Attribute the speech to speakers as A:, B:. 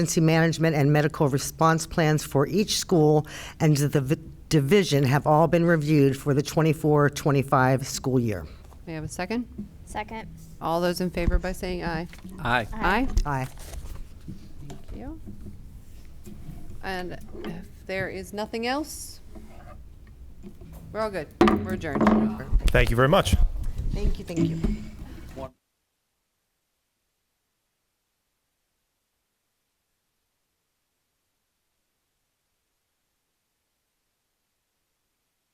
A: emergency management and medical response plans for each school and the v- division have all been reviewed for the 24-25 school year.
B: May I have a second?
C: Second.
B: All those in favor by saying aye.
D: Aye.
B: Aye.
A: Aye.
B: Thank you. And if there is nothing else, we're all good. We're adjourned.
E: Thank you very much.
B: Thank you, thank you.